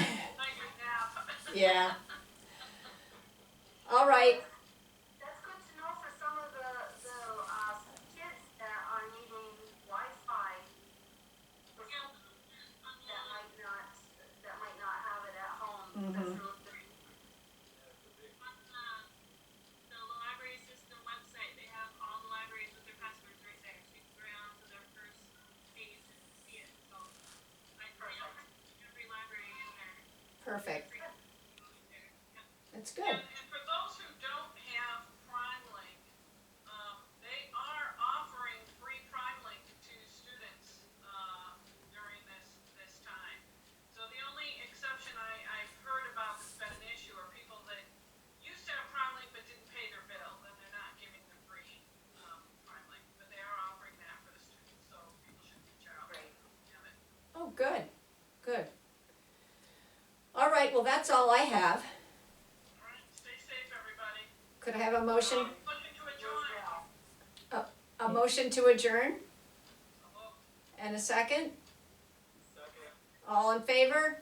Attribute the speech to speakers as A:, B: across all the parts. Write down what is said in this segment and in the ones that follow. A: Oh.
B: um, uh, um,
A: that's Oh, all I have.
B: Alright, stay safe, everybody.
A: Could I have a motion,
B: Looking to adjourn.
A: a motion to adjourn
B: Hello?
A: and a second?
B: Second.
A: All in favor?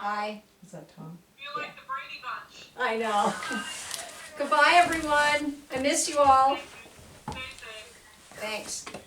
A: Aye,
C: Is that Tom?
B: Feel like the Brady Bunch.
A: I know. Goodbye, everyone. I miss you all.
B: Stay safe.
A: Thanks.